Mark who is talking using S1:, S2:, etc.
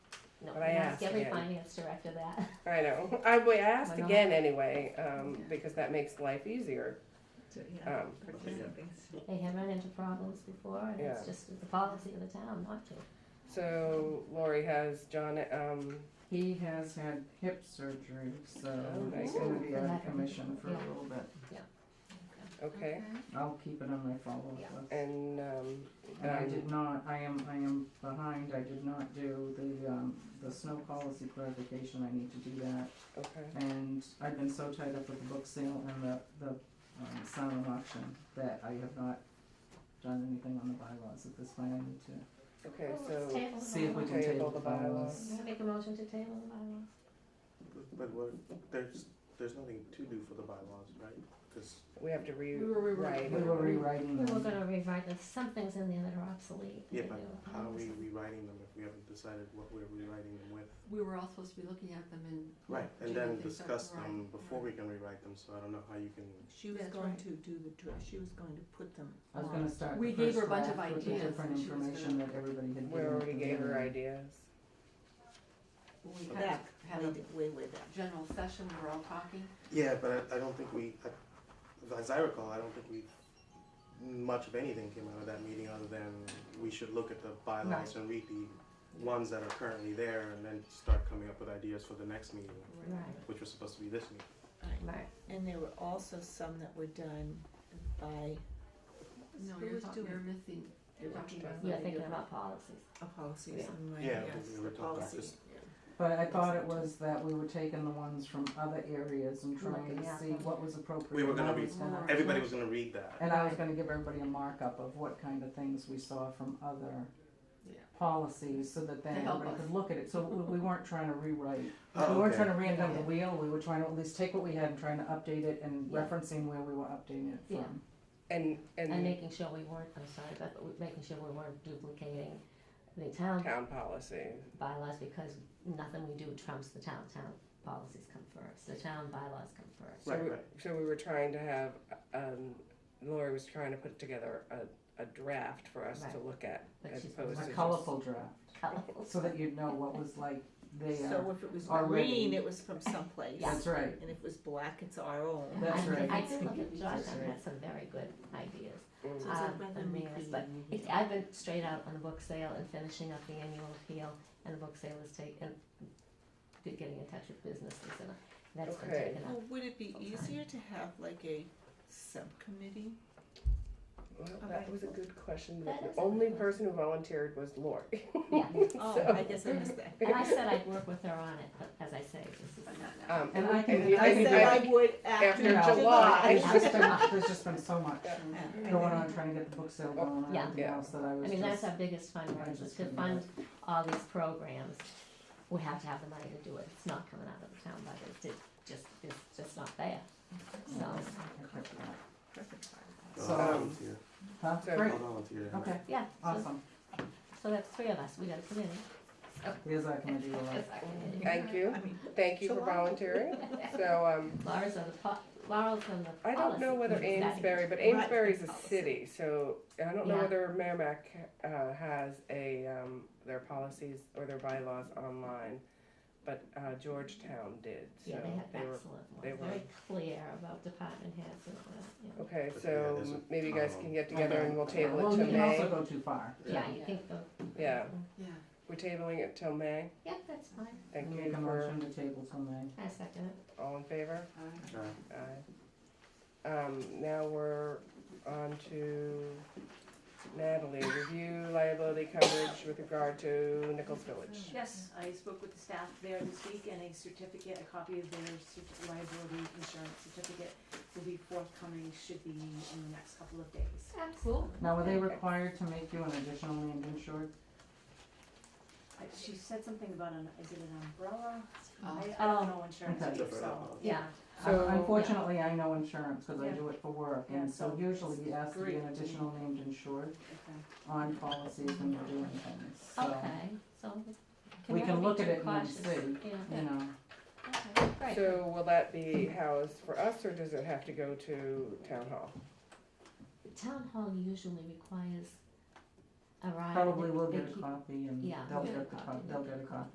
S1: don't
S2: But I
S1: ask
S2: asked
S1: every
S2: again.
S1: finance director that.
S2: I know. I, we asked
S1: Why not?
S2: again anyway, um,
S3: Yeah.
S2: because that makes life easier.
S3: So, yeah,
S4: Uh,
S2: Um,
S3: participants.
S1: They have run into problems before and it's
S2: Yeah.
S1: just the policy of the town not to.
S2: so Lori has John, um,
S4: He has had hip surgery, so
S2: Oh, nice.
S4: he's gonna be out
S1: Ooh.
S4: of commission for a
S1: Yeah.
S4: little bit.
S2: okay,
S4: I'll keep it on my follow-up
S1: Yeah.
S4: list.
S2: and, um,
S4: And I
S2: um,
S4: did not, I am, I am behind, I did not do the, um, the snow policy clarification, I need to do that.
S2: okay,
S4: And I've been so tied up with the book sale and the, the, um, silent auction that I have not done anything on the bylaws at this point, I need to
S2: okay,
S1: Well, let's
S2: so,
S1: table the
S4: see if we
S1: bylaws.
S4: can
S2: Okay,
S4: table
S2: all
S4: the
S2: the bylaws.
S4: bylaws.
S1: You wanna Make a motion to table the bylaws.
S5: But what, there's, there's nothing to do for the bylaws, right? Cause
S2: we have to re-
S3: We were rewriting.
S4: We were
S1: We
S4: rewriting
S1: were
S4: them.
S1: gonna rewrite, there's some things in there that are obsolete.
S5: Yeah,
S1: that
S5: but
S1: we-
S5: how are we rewriting them if we haven't decided what we're rewriting them with?
S3: We were all supposed to be looking at them and.
S5: Right, and
S3: Do
S5: then
S3: nothing, so-
S5: discuss
S3: right,
S5: them before
S3: right.
S5: we can rewrite them, so I don't know how you can,
S3: She was
S1: That's
S3: going
S1: right.
S3: to do the, dr- she was going to put them
S4: I was
S3: on.
S4: gonna start
S3: Um, We
S4: the
S3: gave
S4: first
S3: her a bunch of
S4: draft with the
S3: ideas,
S4: different
S3: and she was
S4: information
S3: gonna-
S4: that everybody had
S2: we
S4: given
S2: already
S4: to
S2: gave her
S4: them.
S2: ideas.
S3: When we
S5: Okay.
S3: had, had a general session, we're all talking.
S5: yeah, but I, I don't think we, I- as I recall, I don't think we, much of anything came out of that meeting other than we should look at the bylaws and read the ones that are currently there and then start coming up with ideas for the next meeting,
S1: Right,
S5: which was supposed to be this meeting.
S1: right.
S6: And there were also some that were done by,
S3: No,
S6: who
S3: you're
S6: was
S3: talking,
S6: doing
S3: you're missing, you're talking about
S1: You're thinking
S3: something different.
S1: about policies.
S6: a policy
S1: Yeah.
S6: somewhere,
S5: Yeah,
S6: yes,
S5: we were
S6: the
S5: talking about
S6: policy.
S5: just-
S4: But I thought it was that we were taking the ones from other areas and trying
S1: Looking
S4: to
S1: at
S4: see
S1: them.
S4: what was appropriate.
S5: We were gonna
S4: and I
S5: be-
S4: was gonna-
S5: Everybody was gonna read that.
S4: And I was gonna give everybody a markup of what kind of things we saw from other
S3: Yeah.
S4: policies, so that then
S3: To help
S4: everybody
S3: us.
S4: could look at it, so we, we weren't trying to rewrite.
S5: Oh,
S4: We weren't
S5: okay.
S4: trying to reinvent the wheel, we were trying to at least take what we had and trying to update it and
S1: Yeah.
S4: referencing where we were updating it
S1: Yeah.
S4: from.
S2: And,
S1: And
S2: and
S1: making sure we weren't, I'm sorry, but we- making sure we weren't duplicating the town
S2: town policy,
S1: bylaws because nothing we do trumps the town. Town policies come first, the town bylaws come first.
S2: so
S5: Right,
S2: we,
S5: right.
S2: so we were trying to have, um, Lori was trying to put together a, a draft for us to
S1: Right.
S2: look at,
S1: But
S2: as
S1: she's
S2: opposed
S4: A
S2: to just,
S4: colorful draft,
S1: Colorful.
S4: so that you'd know what was like there,
S6: So if it was
S4: Already.
S6: green, it was from someplace.
S4: that's right,
S6: And if it was black, it's our own.
S4: That's
S1: I-
S4: right.
S1: I did look at Josh,
S4: That's
S1: and
S4: right.
S1: had some very good ideas.
S2: Mm,
S6: So it's like
S1: Um,
S6: whether
S1: and
S6: we
S1: meals,
S6: create
S1: but
S6: new
S1: It's, I've been straight out on the book sale and finishing up the annual appeal, and the book sale is taken, getting in touch with businesses, and that's been
S2: Okay.
S1: taken up.
S6: Well, would it be
S1: Full time.
S6: easier to have like a subcommittee?
S2: well, that
S6: Okay.
S2: was a good question,
S1: That
S2: but
S1: is
S2: the
S1: a
S2: only
S1: good
S2: person who volunteered was Lori.
S1: Yeah,
S6: Oh, I guess I missed that.
S1: and I said I'd work with her on it, but as I say, this is.
S2: Um,
S4: And I can-
S2: and
S6: I
S4: think-
S6: said
S4: I
S6: I would
S2: after
S6: after
S4: July.
S6: July.
S4: There's just been, there's just been so much
S6: Yeah.
S4: going on, trying to get the book sale going and
S1: Yeah.
S4: everything else that I
S1: I
S4: was
S1: mean, that's
S4: just,
S1: our biggest fundraiser, is
S4: just
S1: to
S4: couldn't
S1: fund all these programs, we have to have the money to do it, it's not coming out of the town budget, it just, it's just not there. So,
S4: I kept that.
S5: I'll
S4: So-
S5: volunteer.
S4: Huh?
S2: So-
S4: Great,
S5: I'll volunteer.
S4: okay,
S1: yeah, so,
S4: awesome,
S1: so that's three of us, we got a committee.
S4: here's our committee, we'll, uh,
S1: That's our committee.
S2: Thank you,
S6: I mean,
S2: thank you for volunteering, so, um,
S1: Laura's on the po- Laura's on the policy.
S2: I don't know whether
S1: committee.
S2: Amesbury, but
S6: Right.
S2: Amesbury's a
S6: Policy.
S2: city, so I don't know
S1: Yeah.
S2: whether Merrimack, uh, has a, um, their policies or their bylaws online, but, uh, Georgetown did, so
S1: Yeah, they have
S2: they were,
S1: excellent
S2: they
S1: ones,
S2: were-
S1: very clear about department heads and all that, yeah.
S2: okay,
S5: But yeah,
S2: so
S5: there's a
S2: maybe you guys
S5: ton of
S2: can
S5: them.
S2: get together and we'll table
S4: well,
S2: it
S4: you
S2: till
S4: can also
S2: May,
S4: go too far.
S1: Yeah, you think the,
S2: yeah,
S3: Yeah,
S2: we're tabling it till May,
S1: yeah, that's fine,
S2: thank
S4: We'll
S2: you
S4: Make a
S2: for,
S4: motion to table till May.
S1: I second it.
S2: all in favor?
S3: alright.
S5: All right.
S2: Aye. Uh, Um, now we're on to Natalie, review liability coverage with regard to Nichols Village.
S7: Yes, I spoke with the staff there this week and a certificate, a copy of their certi- liability insurance certificate will be forthcoming, should be in the next couple of days.
S1: Yeah, cool.
S4: Now, are they required to make you an additional land insured?
S7: I- She said something about an, is it an umbrella? I, I
S1: Oh.
S7: don't know insurance,
S4: Okay.
S7: either, so.
S1: Yeah,
S2: So-
S4: Unfortunately, I know insurance, cause I
S7: Yeah.
S4: do it for work,
S7: Yeah,
S4: and so
S7: so
S4: usually you ask to be an
S7: great.
S4: additional named insured
S7: okay.
S4: on policies when you're doing things, so,
S1: okay, so.
S4: We
S1: we
S4: can
S1: be
S4: look at
S1: too
S4: it and
S1: cautious?
S4: see.
S1: Yeah,
S4: you know,
S1: okay, great.
S2: So will that be housed for us, or does it have to go to town hall?
S1: The Town hall usually requires a ride.
S4: probably
S1: They-
S4: will
S1: they
S4: get a
S1: keep-
S4: copy and
S1: Yeah,
S4: they'll
S1: we'll
S4: get
S1: get
S4: a
S1: a copy,
S4: copy, they'll get a copy.